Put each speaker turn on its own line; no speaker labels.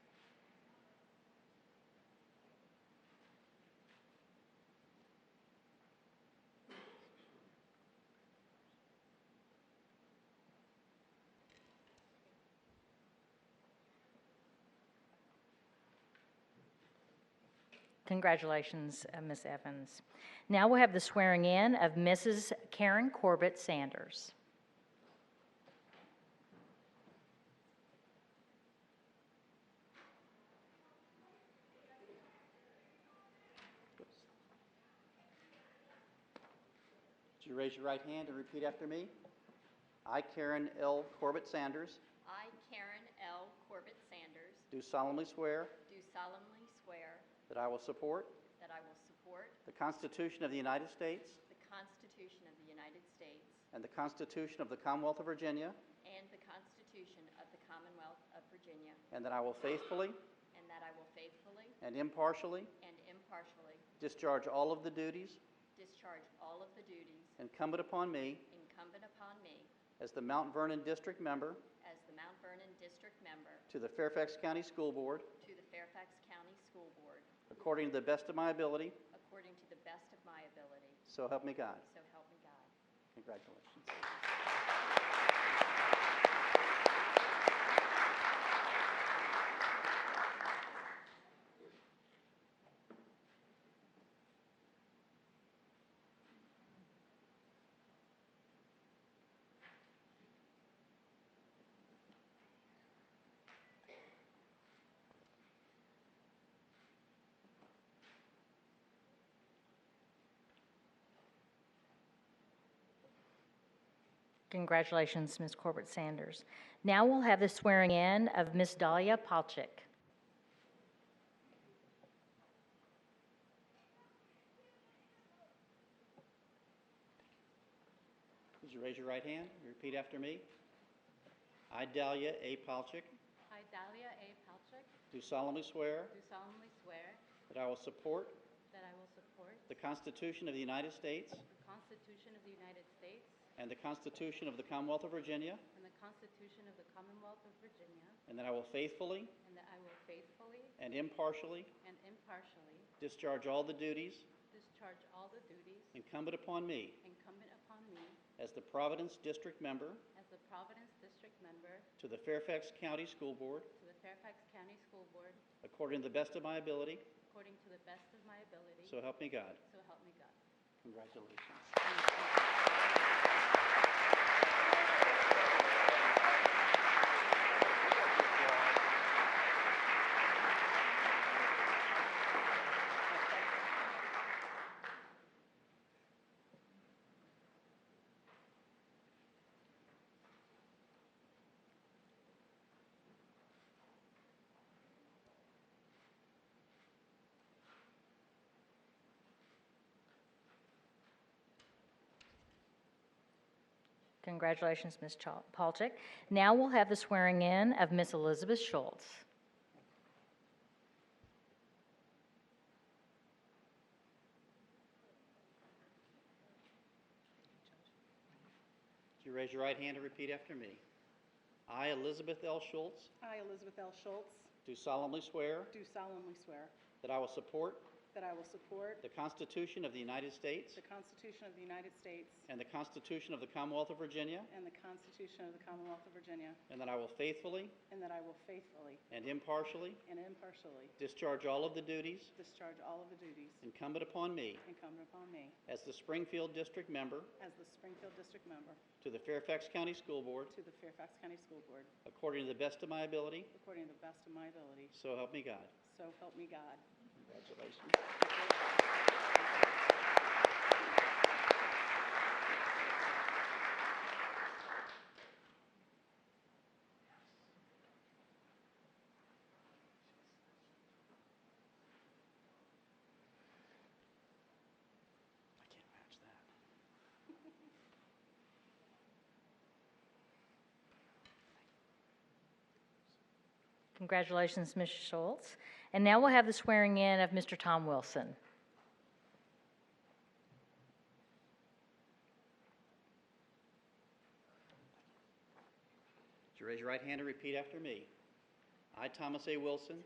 Congratulations, uh, Ms. Evans. Now we'll have the swearing in of Mrs. Karen Corbett Sanders.
Would you raise your right hand and repeat after me? I, Karen L. Corbett Sanders,
I, Karen L. Corbett Sanders,
do solemnly swear
do solemnly swear
that I will support
that I will support
the Constitution of the United States
the Constitution of the United States
and the Constitution of the Commonwealth of Virginia,
and the Constitution of the Commonwealth of Virginia,
and that I will faithfully
and that I will faithfully
and impartially
and impartially
discharge all of the duties
discharge all of the duties
incumbent upon me
incumbent upon me
as the Mount Vernon District Member
as the Mount Vernon District Member
to the Fairfax County School Board
to the Fairfax County School Board,
according to the best of my ability,
according to the best of my ability,
so help me God.
so help me God.
Congratulations.
Congratulations, Ms. Corbett Sanders. Now we'll have the swearing in of Ms. Dahlia Palchik.
Would you raise your right hand and repeat after me? I, Dahlia A. Palchik,
I, Dahlia A. Palchik,
do solemnly swear
do solemnly swear
that I will support
that I will support
The Constitution of the United States
the Constitution of the United States
and the Constitution of the Commonwealth of Virginia,
and the Constitution of the Commonwealth of Virginia,
and that I will faithfully
and that I will faithfully
and impartially
and impartially
discharge all the duties
discharge all the duties
incumbent upon me
incumbent upon me
as the Providence District Member
as a Providence District Member
to the Fairfax County School Board
to the Fairfax County School Board
according to the best of my ability,
according to the best of my ability,
so help me God.
so help me God.
Congratulations.
Congratulations, Ms. Chal- Palchik. Now we'll have the swearing in of Ms. Elizabeth Schultz.
Would you raise your right hand and repeat after me? I, Elizabeth L. Schultz,
I, Elizabeth L. Schultz,
do solemnly swear
do solemnly swear
that I will support
that I will support
the Constitution of the United States
the Constitution of the United States
and the Constitution of the Commonwealth of Virginia,
and the Constitution of the Commonwealth of Virginia,
and that I will faithfully
and that I will faithfully
and impartially
and impartially
discharge all of the duties
discharge all of the duties
incumbent upon me
incumbent upon me
as the Springfield District Member
as the Springfield District Member
to the Fairfax County School Board
to the Fairfax County School Board,
according to the best of my ability,
according to the best of my ability,
so help me God.
so help me God.
Congratulations. I can't match that.
Congratulations, Ms. Schultz. And now we'll have the swearing in of Mr. Tom Wilson.
Would you raise your right hand and repeat after me? I, Thomas A. Wilson,